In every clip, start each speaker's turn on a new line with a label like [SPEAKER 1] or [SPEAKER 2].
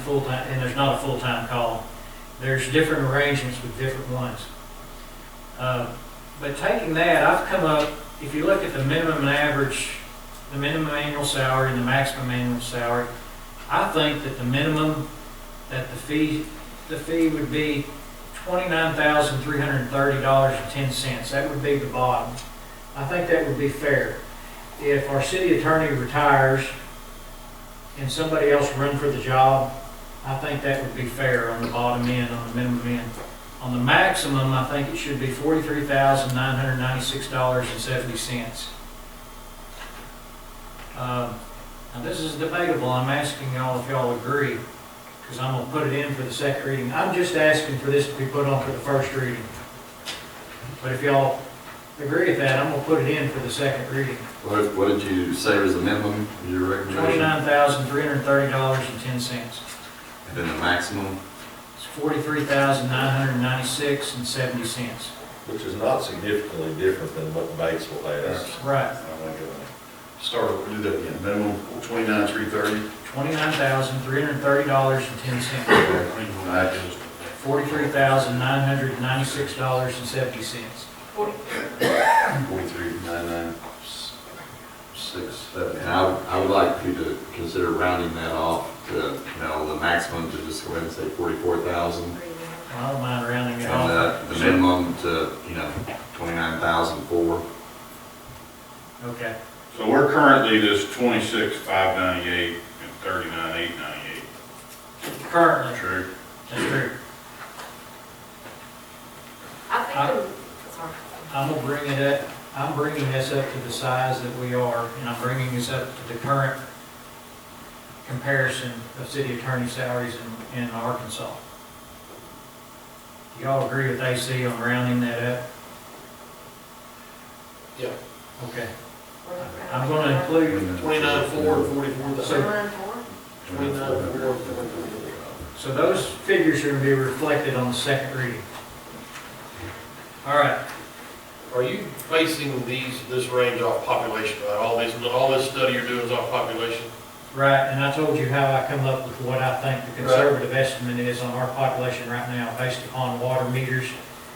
[SPEAKER 1] full-time, and there's not a full-time call. There's different arrangements with different ones. Uh, But taking that, I've come up, if you look at the minimum and average, the minimum annual salary and the maximum annual salary, I think that the minimum, that the fee, the fee would be twenty-nine thousand, three hundred and thirty dollars and ten cents. That would be the bottom. I think that would be fair. If our city attorney retires and somebody else run for the job, I think that would be fair on the bottom end, on the minimum end. On the maximum, I think it should be forty-three thousand, nine hundred and ninety-six dollars and seventy cents. Um, Now, this is debatable. I'm asking y'all if y'all agree because I'm gonna put it in for the second reading. I'm just asking for this to be put on for the first reading. But if y'all agree with that, I'm gonna put it in for the second reading.
[SPEAKER 2] What, what did you say was the minimum, your recommendation?
[SPEAKER 1] Twenty-nine thousand, three hundred and thirty dollars and ten cents.
[SPEAKER 2] And then the maximum?
[SPEAKER 1] It's forty-three thousand, nine hundred and ninety-six and seventy cents.
[SPEAKER 3] Which is not significantly different than what Batesville has.
[SPEAKER 1] Right,
[SPEAKER 4] Start, we'll do that again, minimum twenty-nine, three thirty.
[SPEAKER 1] twenty-nine thousand, three hundred and thirty dollars and ten cents. Forty-three thousand, nine hundred and ninety-six dollars and seventy cents.
[SPEAKER 4] Forty-three, nine, nine, six, seven.
[SPEAKER 2] And I, I would like you to consider rounding that off to, you know, the maximum to just go ahead and say forty-four thousand.
[SPEAKER 1] I don't mind rounding
[SPEAKER 2] And uh,
[SPEAKER 1] it off.
[SPEAKER 2] the, the minimum to, you know, twenty-nine thousand four.
[SPEAKER 1] Okay,
[SPEAKER 5] So we're currently this twenty-six, five ninety-eight and thirty-nine, eight ninety-eight,
[SPEAKER 1] currently,
[SPEAKER 5] true?
[SPEAKER 1] that's true.
[SPEAKER 6] I think, the- sorry.
[SPEAKER 1] I'm gonna bring it up, I'm bringing this up to the size that we are, and I'm bringing this up to the current comparison of city attorney salaries in, in Arkansas. Do y'all agree with AC on rounding that up?
[SPEAKER 7] Yeah.
[SPEAKER 1] Okay, I'm gonna include,
[SPEAKER 7] Twenty-nine, four, and forty-four thousand.
[SPEAKER 6] Seven and four?
[SPEAKER 7] Twenty-nine, four, and forty-four.
[SPEAKER 1] so those figures are gonna be reflected on the second reading. All right,
[SPEAKER 7] Are you basing these, this range off population, right? All these, all this study you're doing is off population?
[SPEAKER 1] right, and I told you how I come up with what I think the conservative estimate is on our population right now based upon water meters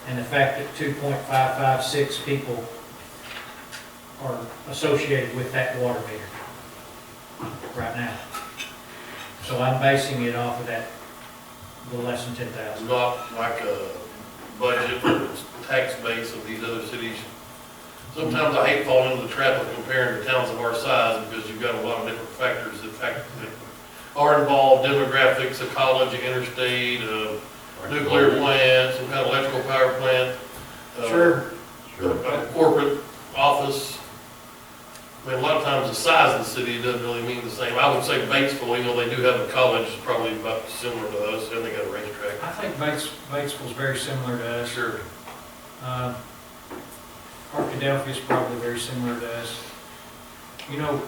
[SPEAKER 1] and the fact that two point five five six people are associated with that water meter right now. So I'm basing it off of that, the less than ten
[SPEAKER 7] It's
[SPEAKER 1] thousand.
[SPEAKER 7] not like a budget or tax base of these other cities? Sometimes I hate falling into the trap of comparing the towns of our size because you've got a lot of different factors that fact- that are involved, demographics, ecology, interstate, uh, nuclear plant, some kind of electrical power plant. uh,
[SPEAKER 1] Sure,
[SPEAKER 7] a corporate office. I mean, a lot of times the size of the city doesn't really mean the same. I would say Batesville, even though they do have a college, it's probably about similar to us, and they got a racetrack.
[SPEAKER 1] I think Bates, Batesville's very similar to us.
[SPEAKER 7] Sure.
[SPEAKER 1] Uh, Arkadelphia's probably very similar to us. You know,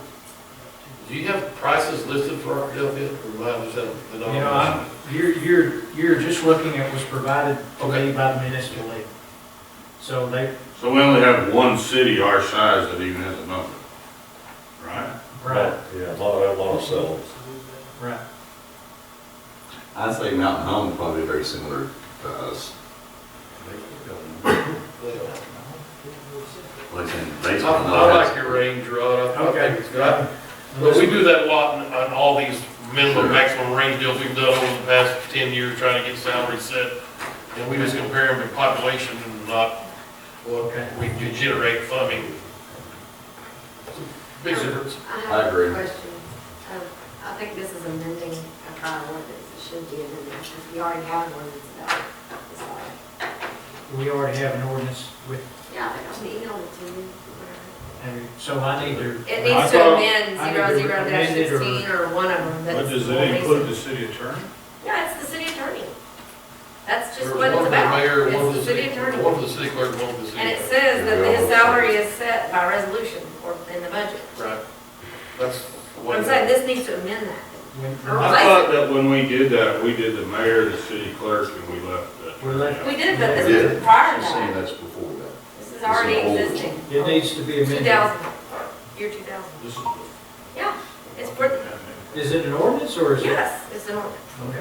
[SPEAKER 7] Do you have prices listed for Arkadelphia, or am I just have the
[SPEAKER 1] You know, I'm,
[SPEAKER 7] numbers?
[SPEAKER 1] you're, you're, you're just looking at what's provided to me by the municipal league. So they,
[SPEAKER 5] So we only have one city our size that even has a number, right?
[SPEAKER 1] right,
[SPEAKER 3] Yeah, a lot, of- a lot of cells.
[SPEAKER 1] right.
[SPEAKER 2] I'd say Mountain Home probably very similar to us, at least in
[SPEAKER 7] I
[SPEAKER 2] based on the
[SPEAKER 7] I like your range, Rod, I- I think it's good. I- But we do that a lot in- on all these minimum, maximum range deals we've done over the past ten years, trying to get salaries set. And we just compare them to population and not what
[SPEAKER 1] Okay.
[SPEAKER 7] we do generate funding. Big difference.
[SPEAKER 2] I
[SPEAKER 6] have a
[SPEAKER 2] agree.
[SPEAKER 6] question. Um, I think this is amending a prior ordinance, it should be amended, because we already have an ordinance about this. already.
[SPEAKER 1] We already have an ordinance with,
[SPEAKER 6] Yeah, I think I emailed it to you. whatever.
[SPEAKER 1] and so I need to,
[SPEAKER 6] It
[SPEAKER 5] I
[SPEAKER 6] needs to
[SPEAKER 5] thought-
[SPEAKER 6] amend
[SPEAKER 1] I
[SPEAKER 6] zero
[SPEAKER 1] need to
[SPEAKER 6] zero dash
[SPEAKER 1] amend it or-
[SPEAKER 6] sixteen or one of them.
[SPEAKER 5] But
[SPEAKER 6] that's
[SPEAKER 5] does
[SPEAKER 6] more
[SPEAKER 5] it include
[SPEAKER 6] basic.
[SPEAKER 5] the city attorney?
[SPEAKER 6] Yeah, it's the city attorney. That's
[SPEAKER 7] There
[SPEAKER 6] just
[SPEAKER 7] was
[SPEAKER 6] what
[SPEAKER 7] one
[SPEAKER 6] it's
[SPEAKER 7] for the
[SPEAKER 6] about.
[SPEAKER 7] mayor, one for
[SPEAKER 6] It's the city attorney.
[SPEAKER 7] One for the city clerk, one for the city.
[SPEAKER 6] And it says that his salary is set by resolution or in the budget.
[SPEAKER 7] Right. That's what.
[SPEAKER 6] I'm saying this needs to amend that.
[SPEAKER 1] when,
[SPEAKER 5] I thought that when we did that, we did the mayor, the city clerk, and we left the
[SPEAKER 1] We left-
[SPEAKER 6] We
[SPEAKER 5] attorney out.
[SPEAKER 6] did, but
[SPEAKER 4] Yeah,
[SPEAKER 6] this
[SPEAKER 4] she's
[SPEAKER 6] is prior to
[SPEAKER 4] saying
[SPEAKER 6] that.
[SPEAKER 4] that's before that.
[SPEAKER 6] This is already
[SPEAKER 4] old.
[SPEAKER 6] existing.
[SPEAKER 1] it needs to be
[SPEAKER 6] Two
[SPEAKER 1] amended.
[SPEAKER 6] thousand, year two thousand.
[SPEAKER 7] This is
[SPEAKER 6] Yeah, it's worth,
[SPEAKER 1] Is it an ordinance or is it?
[SPEAKER 6] yes, it's an ordinance.
[SPEAKER 1] Okay.